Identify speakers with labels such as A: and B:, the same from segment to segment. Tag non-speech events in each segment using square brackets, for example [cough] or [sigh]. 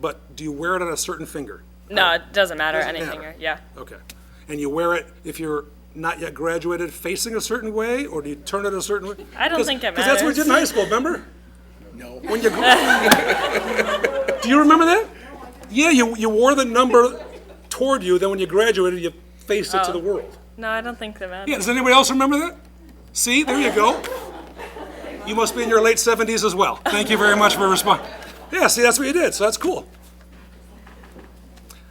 A: but do you wear it on a certain finger?
B: No, it doesn't matter
A: Doesn't
B: anything.
A: matter.
B: Yeah.
A: Okay. And you wear it if you're not yet graduated facing a certain way, or do you turn it a certain way?
B: I don't think it
A: Because that's what we did in high school, remember?
C: No.
A: When you, do [laughs] you remember that? Yeah, you, you wore the number toward you, then when you graduated, you faced it to
B: Oh.
A: the world.
B: No, I don't think that matters.
A: Yeah, does anybody else remember that? See, there you go. You must be in your late 70s as well. Thank you very much for responding. Yeah, see, that's what you did, so that's cool.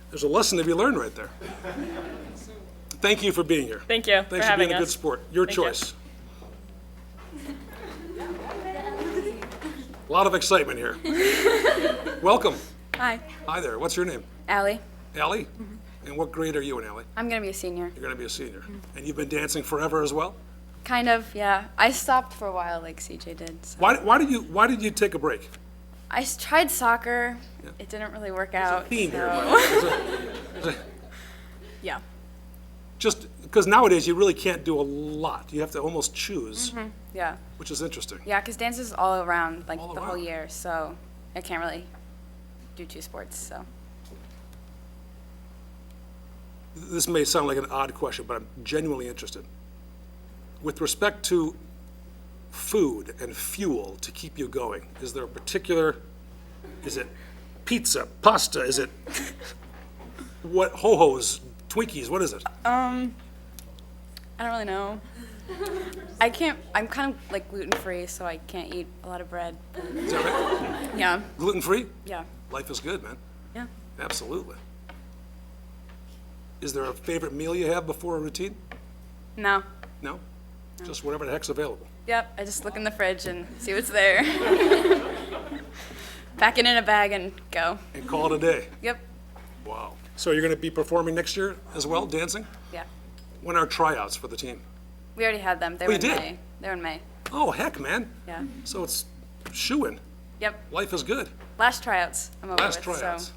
A: There's a lesson to be learned right there. Thank you for being here.
B: Thank you for
A: Thanks for
B: having
A: being a
B: us.
A: good sport. Your
B: Thank you.
A: choice. A lot of excitement
B: [laughs]
A: here. Welcome.
D: Hi.
A: Hi there. What's your name?
D: Allie.
A: Allie?
B: Mm-hmm.
A: And what grade are you in, Allie?
D: I'm going to be a senior.
A: You're going to be a senior. And you've been dancing forever as well?
D: Kind of, yeah. I stopped for a while like CJ did. So.
A: Why, why did you why did you take a break?
D: I s- tried soccer. It didn't really work out.
A: Theme here,
D: so-
A: Mike.
D: [laughs]
A: Is it- is it-
D: Yeah.
A: Just because nowadays you really can't do a lot. You have to almost choose,
D: Yeah.
A: which is interesting.
D: Yeah, because dance is all around like
A: All
D: the whole
A: around.
D: year. So I can't really do two sports. So
A: This may sound like an odd question, but I'm genuinely interested. With respect to food and fuel to keep you going, is there a particular is it pizza, pasta, is it what ho-hos, Twinkies, what is it?
D: I don't really know. I can't, I'm kind of like gluten free, so I can't eat a lot of bread.
A: Is that right?
D: Yeah.
A: Gluten-free?
D: Yeah.
A: Life is good, man.
D: Yeah.
A: Absolutely. Is there a favorite meal you have before a routine?
D: No.
A: No? Just whatever the heck's available.
D: Yep. I just look in the fridge and see
A: [laughs]
D: what's there. Pack it in a bag and go.
A: And call it a day.
D: Yep.
A: Wow. So you're going to be performing next year as well, dancing?
D: Yeah.
A: When are tryouts for the team?
D: We already had them. They
A: We
D: were in
A: Oh, did?
D: May. They were in May.
A: Oh, heck, man.
D: Yeah.
A: So it's shooing.
D: Yep.
A: Life is good.
D: Last tryouts. I'm over
A: Last
D: with.
A: tryouts.
D: So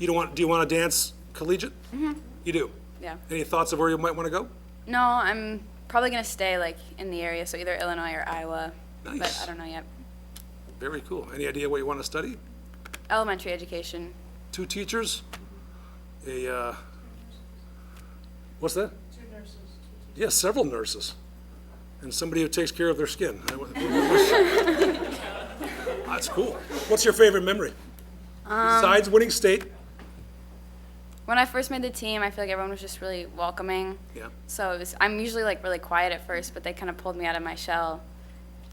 A: You don't want, do you want to dance collegiate? Mm-hmm. You do?
D: yeah.
A: Any thoughts of where you might want to go?
D: No, I'm probably gonna stay like in the area, so either Illinois or Iowa. But
A: Nice.
D: I don't know yet.
A: Very cool. Any idea what you want to study?
D: Elementary education.
A: Two teachers? A, uh, what's that? Yes, several nurses, and somebody who takes care of their skin. I wa- That's cool. What's your favorite memory? Besides winning state?
D: When I first made the team, I feel like everyone was just really welcoming.
A: Yeah.
D: So it was, I'm usually like really quiet at first, but they kind of pulled me out of my shell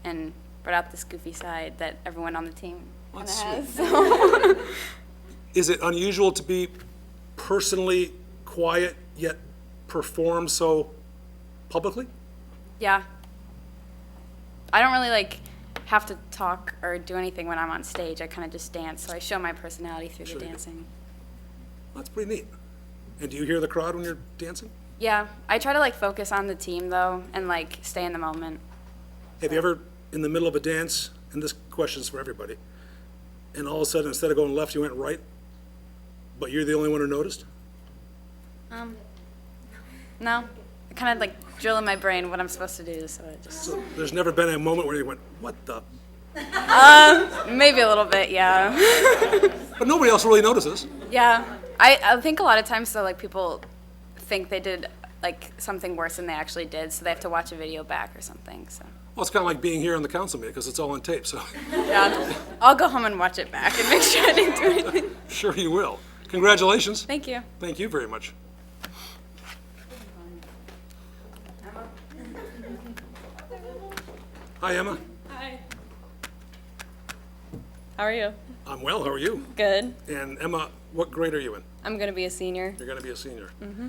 D: and brought out this goofy side that everyone on the team kind of
A: That's
D: has.
A: Is it unusual to be personally quiet yet perform so publicly?
D: Yeah. I don't really like have to talk or do anything when I'm on stage. I kind of just dance, so I show my personality through
A: Sure
D: the
A: you do.
D: dancing.
A: That's pretty neat. And do you hear the crowd when you're dancing?
D: Yeah, I try to like focus on the team though and like stay in the moment.
A: Have you ever, in the middle of a dance, and this question's for everybody, and all of a sudden, instead of going left, you went right, but you're the only one who noticed?
D: No, I kind of like drill in my brain what I'm supposed to do, so it just
A: So there's never been a moment where you went, what the?
D: maybe a little bit, yeah, [laughs]
A: But nobody else really notices.
D: yeah. I I think a lot of times though like people think they did like something worse than they actually did, so they have to watch a video back or something. So
A: Well, it's kind of like being here on the council meeting, because it's all on tape, so [laughs]
D: yeah, I'll go home and watch it back and make sure I didn't do anything.
A: [laughs] sure you will. Congratulations.
D: Thank you.
A: Thank you very much. Hi, Emma.
B: How are you? [laughs]
A: I'm well, how are you?
B: Good.
A: And Emma, what grade are you in?
B: I'm gonna be a senior.
A: You're going to be a senior. Mm-hmm.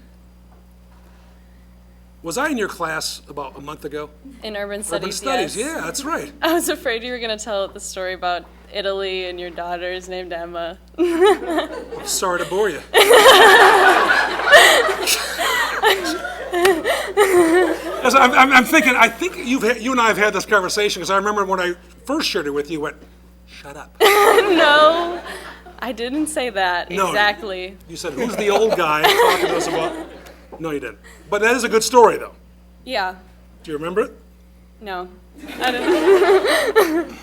A: Was I in your class about a month ago?
B: In urban studies.
A: Urban studies,
B: yes.
A: yeah, that's
B: [laughs]
A: right.
B: I was afraid you were gonna tell the story about Italy and your daughter's named Emma.
A: [laughs] Sorry to
B: [laughs]
A: bore you. As I'm, I'm, I'm thinking, I think you've had, you and I have had this conversation because I remember when I first shared it with you, you went, "Shut up."
B: no, I didn't say that
A: No.
B: exactly.
A: You said, "Who's the old guy talking to us about?" No, you didn't. But that is a good story, though.
B: Yeah.
A: Do you remember it?
B: No. I don't.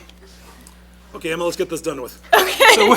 A: Okay, Emma, let's get this done with. Okay.